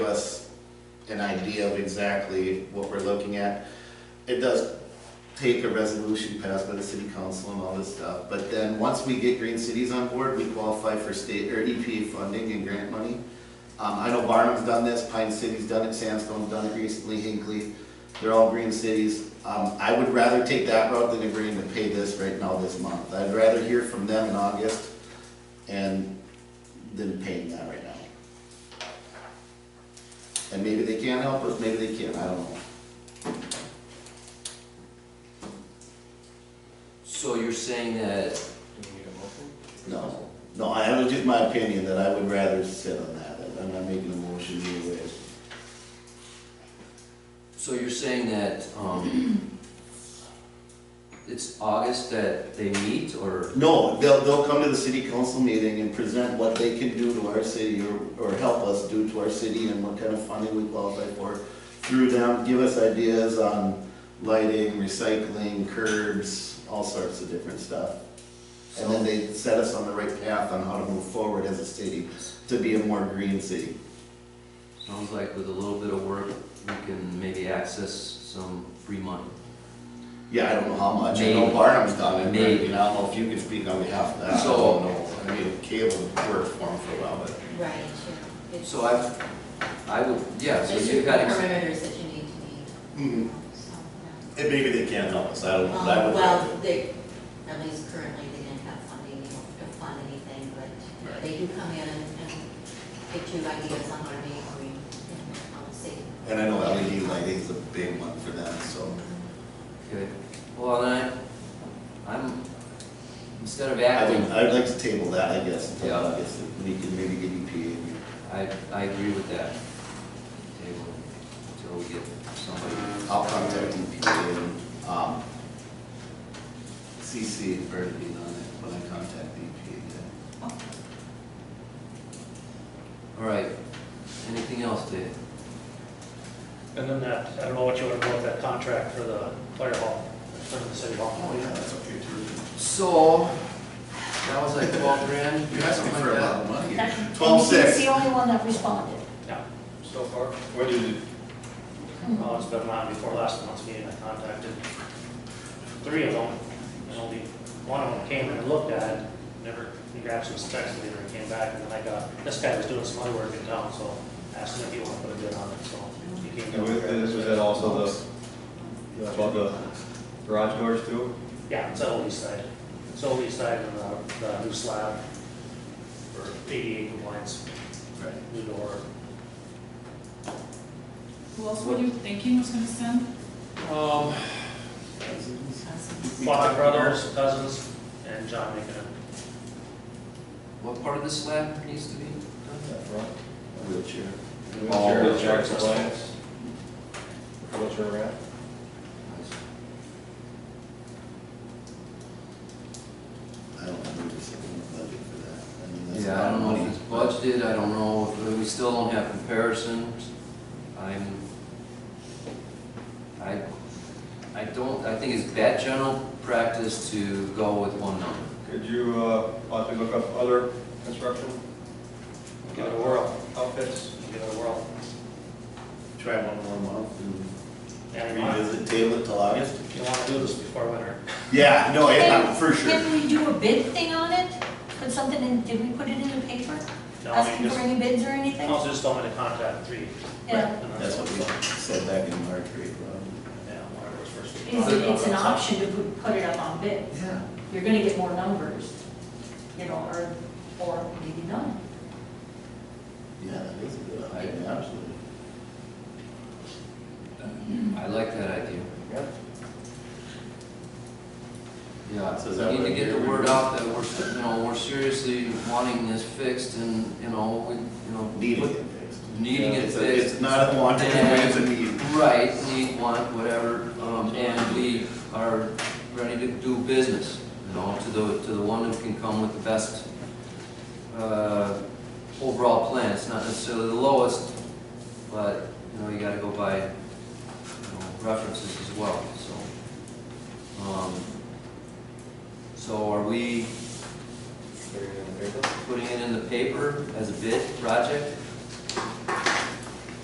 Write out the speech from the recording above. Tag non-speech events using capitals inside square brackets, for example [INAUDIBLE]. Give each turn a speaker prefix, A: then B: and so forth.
A: give us an idea of exactly what we're looking at. It does take a resolution passed by the city council and all this stuff, but then, once we get Green Cities on board, we qualify for state, or EPA funding and grant money. Um, I know Barnum's done this, Pine City's done it, Sandstone's done it recently, Hinkley, they're all green cities. Um, I would rather take that route than agreeing to pay this right now this month. I'd rather hear from them in August and than paying that right now. And maybe they can help us, maybe they can't, I don't know.
B: So you're saying that,
A: No, no, I, it was just my opinion that I would rather sit on that, I'm not making a motion either way.
B: so you're saying that, um, [CLEARS THROAT] it's August that they meet, or,
A: No, they'll, they'll come to the city council meeting and present what they can do to our city or, or help us do to our city and what kind of funding we qualify for through them, give us ideas on lighting, recycling, curbs, all sorts of different stuff. And then they set us on the right path on how to move forward as a city to be a more green city.
B: sounds like with a little bit of work, we can maybe access some free money.
A: Yeah, I don't know how much, I know
B: Maybe.
A: Barnum's done it, but I
B: Maybe.
A: mean, I don't know if you can speak on behalf of that, I
B: So-
A: don't know. I mean, Caleb worked for him for a while, but.
C: Right, yeah. It's-
B: So I, I would, yeah, so
C: There's
B: you've
C: certain
B: got, ex- Mm-hmm.
C: parameters that you need to
A: Mhm.
C: meet, so, yeah.
A: And maybe they can't help us, I don't know, but I
C: Um,
A: would.
B: Oh,
C: Well, they, at least currently, they didn't have funding, they don't fund anything,
A: Right.
C: but they do come in and get you ideas on what they agree, on the city.
A: And I know LED lighting is a big one for them, so.
B: okay, well, then I, I'm, instead of
A: I
B: acting,
A: would, I would like to table that, I guess, until
B: Yeah.
A: August, and we can maybe get E EPA. and-
B: I, I agree with that. Table, until we get somebody.
A: I'll contact EPA and, um, CC and Bernadine on it when I contact E the EPA then.
B: All right, anything else, Dave?
D: And then that, I don't know what you want to do with that contract for the fire hall, for the city hall.
A: Oh, yeah, that's okay too.
B: So, that was like twelve grand.
A: You're asking
B: something
A: for a
B: like
A: lot
B: that.
A: of money.
E: That- and
A: Twelve
E: He's
A: six.
E: the only one that responded.
D: Yeah,
F: so far? Where did it,
D: well, Uh, it's been on before last month's meeting, I contacted three of them, and only one of them came and looked at it, never, he grabbed some specs later and came back, and then I got, this guy was doing some other work in town, so I asked him if he wanted to put a bid on it, so he came
F: and with
D: down.
F: this, was that also the, about the garage doors too?
D: Yeah, it's on the east side, it's on the east side and the, the new slab, for ADA compliance,
A: Right.
D: new door.
G: Who else were you thinking was gonna send?
D: Um, Fly Brothers, Cousins, and John Macon.
B: What part of this slab needs to be done?
F: That front?
A: Wheelchair.
F: Wheelchair, wheelchair compliance? Wheelchair ramp?
A: I don't know if there's a budget for that. I mean, that's a
B: Yeah, I
A: lot of
B: don't know if
A: money,
B: it's
A: but-
B: budgeted, I don't know, if- we still don't have comparisons. I'm, I, I don't, I think it's bad general practice to go with one number.
F: Could you, uh, possibly look up other construction
D: Give it a whirl,
F: outfits?
D: give it a whirl.
A: Try one more month
D: And
A: and
D: you want,
A: revisit, table it till August.
D: you want to do this before winter.
A: Yeah, no, Oh, yeah,
E: Can-
A: for sure.
E: Can we do a bid thing on it? Put something in, did we put it in the paper?
D: No, I mean,
E: Asking for
D: just,
E: any bids or anything?
D: also just don't want to contact three.
E: Yeah.
D: And
A: That's what we said back in March, April.
D: Yeah, whatever was first.
E: Is it, it's an option to put- put it up on bid.
A: Yeah.
E: You're gonna get more numbers, you know, or, or maybe none.
A: Yeah, that is a good idea, absolutely.
B: I like that idea.
F: Yeah.
B: Yeah,
A: So is that
B: we need to
A: what
B: get the
A: you're-
B: word out that we're, you know, we're seriously wanting this fixed and, you know, we, you know.
A: Needing
B: put-
A: it fixed.
B: Needing it
A: It's a-
B: fixed.
A: It's not a want, it's a need.
B: Right, need, want, whatever, um, and we are ready to do business, you know, to the, to the one who can come with the best, uh, overall plan, it's not necessarily the lowest, but, you know, you gotta go by, you know, references as well, so. Um, so are we
F: Put it in the paper?
B: putting it in the paper as a bid project?